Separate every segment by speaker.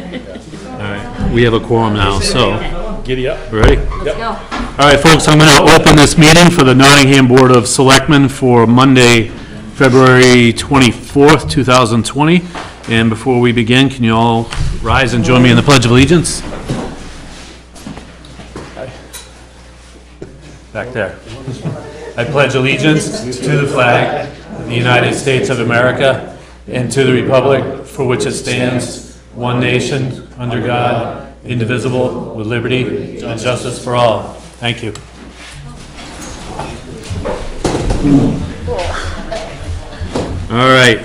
Speaker 1: All right, we have a quorum now, so,
Speaker 2: Giddy up.
Speaker 1: ready?
Speaker 3: Let's go.
Speaker 1: All right, folks, I'm going to open this meeting for the Nottingham Board of Selectmen for Monday, February 24th, 2020. And before we begin, can you all rise and join me in the Pledge of Allegiance? Back there. I pledge allegiance to the flag of the United States of America and to the republic for which it stands, one nation, under God, indivisible, with liberty and justice for all. Thank you. All right.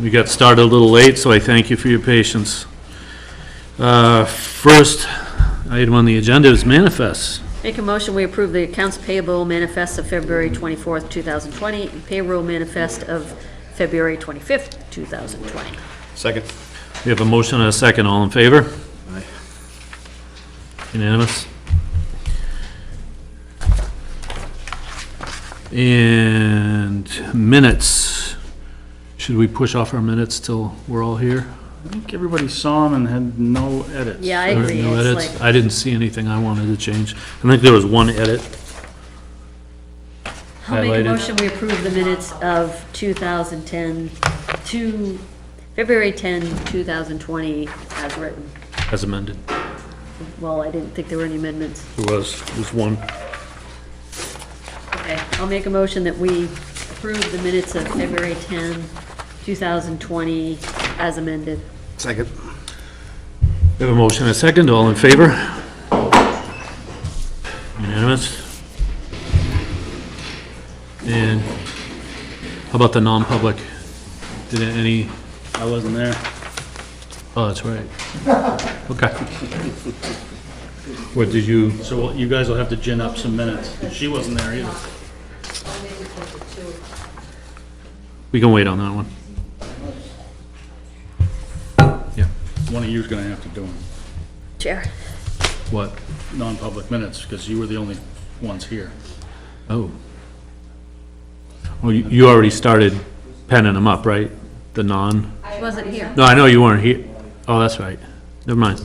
Speaker 1: We got started a little late, so I thank you for your patience. Uh, First item on the agenda is manifests.
Speaker 3: Make a motion, we approve the accounts payable manifest of February 24th, 2020, and payroll manifest of February 25th, 2020.
Speaker 2: Second.
Speaker 1: We have a motion and a second, all in favor? Unanimous? And minutes, should we push off our minutes till we're all here?
Speaker 4: I think everybody saw them and had no edits.
Speaker 3: Yeah, I
Speaker 1: There are
Speaker 3: agree.
Speaker 1: no
Speaker 3: It's
Speaker 1: edits?
Speaker 3: like-
Speaker 1: I didn't see anything I wanted to change. I think there was one edit.
Speaker 3: I'll make
Speaker 1: highlighted.
Speaker 3: a motion, we approve the minutes of 2010, to February 10, 2020, as written.
Speaker 1: As amended.
Speaker 3: Well, I didn't think there were any amendments.
Speaker 1: There was, there's one.
Speaker 3: Okay, I'll make a motion that we approve the minutes of February 10, 2020, as amended.
Speaker 2: Second.
Speaker 1: We have a motion and a second, all in favor? Unanimous? And how about the non-public? Did any,
Speaker 4: I wasn't there.
Speaker 1: oh, that's right. Okay. What, did you,
Speaker 4: So you guys will have to gin up some minutes. She wasn't there either.
Speaker 1: we can wait on that one. Yeah,
Speaker 4: One of you's gonna have to do them,
Speaker 3: Chair.
Speaker 1: what?
Speaker 4: non-public minutes, because you were the only ones here.
Speaker 1: Oh. Well, you- you already started penning them up, right? The non?
Speaker 3: She wasn't here.
Speaker 1: No, I know you weren't here. Oh, that's right. Never mind.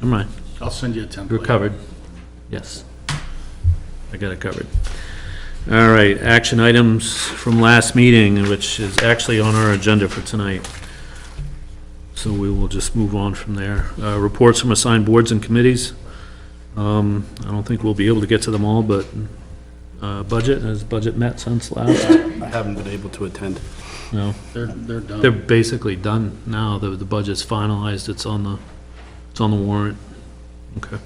Speaker 1: Never mind.
Speaker 4: I'll send you a template.
Speaker 1: We're covered. Yes. I got it covered. All right, action items from last meeting, which is actually on our agenda for tonight. So we will just move on from there. Uh, reports from assigned boards and committees. Um, I don't think we'll be able to get to them all, but, uh, budget, has budget met since last?
Speaker 2: I haven't been able to attend.
Speaker 1: No,
Speaker 4: They're, they're
Speaker 1: they're
Speaker 4: done.
Speaker 1: basically done now. The, the budget's finalized. It's on the, it's on the warrant. Okay.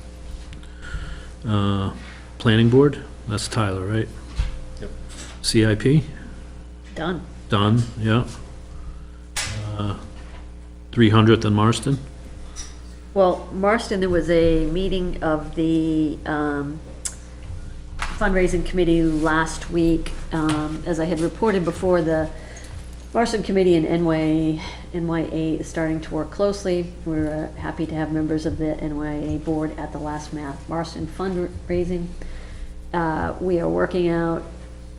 Speaker 1: Uh, Planning board, that's Tyler, right?
Speaker 2: Yep.
Speaker 1: CIP,
Speaker 3: Done.
Speaker 1: done, yeah. Uh, Three hundredth and Marston,
Speaker 3: Well, Marston, there was a meeting of the um, fundraising committee last week. Um, As I had reported before, the Marston Committee and NY, NYA is starting to work closely. We're uh, happy to have members of the NYA board at the last Ma- Marston fundraising. Uh, We are working out,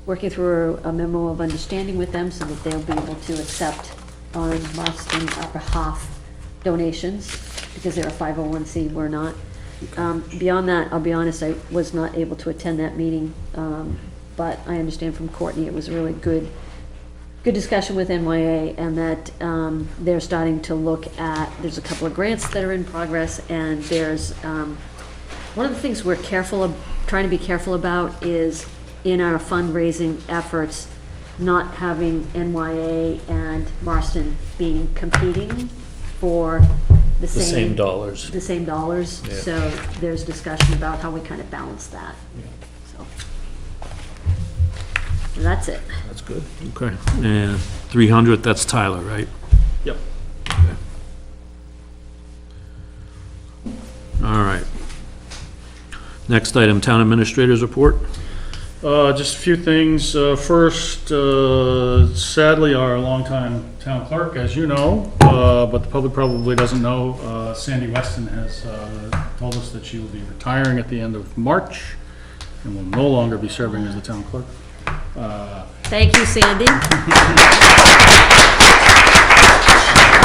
Speaker 3: working through a memo of understanding with them so that they'll be able to accept on Marston Upper Hoff donations, because they're a 501c, we're not. Um, Beyond that, I'll be honest, I was not able to attend that meeting, um, but I understand from Courtney, it was a really good good discussion with NYA and that um, they're starting to look at, there's a couple of grants that are in progress and there's, um, one of the things we're careful, of- trying to be careful about is in our fundraising efforts, not having NYA and Marston being competing for the
Speaker 1: the
Speaker 3: same.
Speaker 1: same dollars.
Speaker 3: The same dollars,
Speaker 1: Yeah.
Speaker 3: so there's discussion about how we kind of balance that, so. And That's it.
Speaker 1: That's good. Okay, and three hundredth, that's Tyler, right?
Speaker 4: Yep.
Speaker 1: All right. Next item, town administrators report.
Speaker 4: Uh, just a few things. Uh, first, uh, sadly, our longtime town clerk, as you know, uh, but the public probably doesn't know, uh, Sandy Weston has, uh, told us that she will be retiring at the end of March and will no longer be serving as the town clerk. Uh,
Speaker 3: Thank you, Sandy.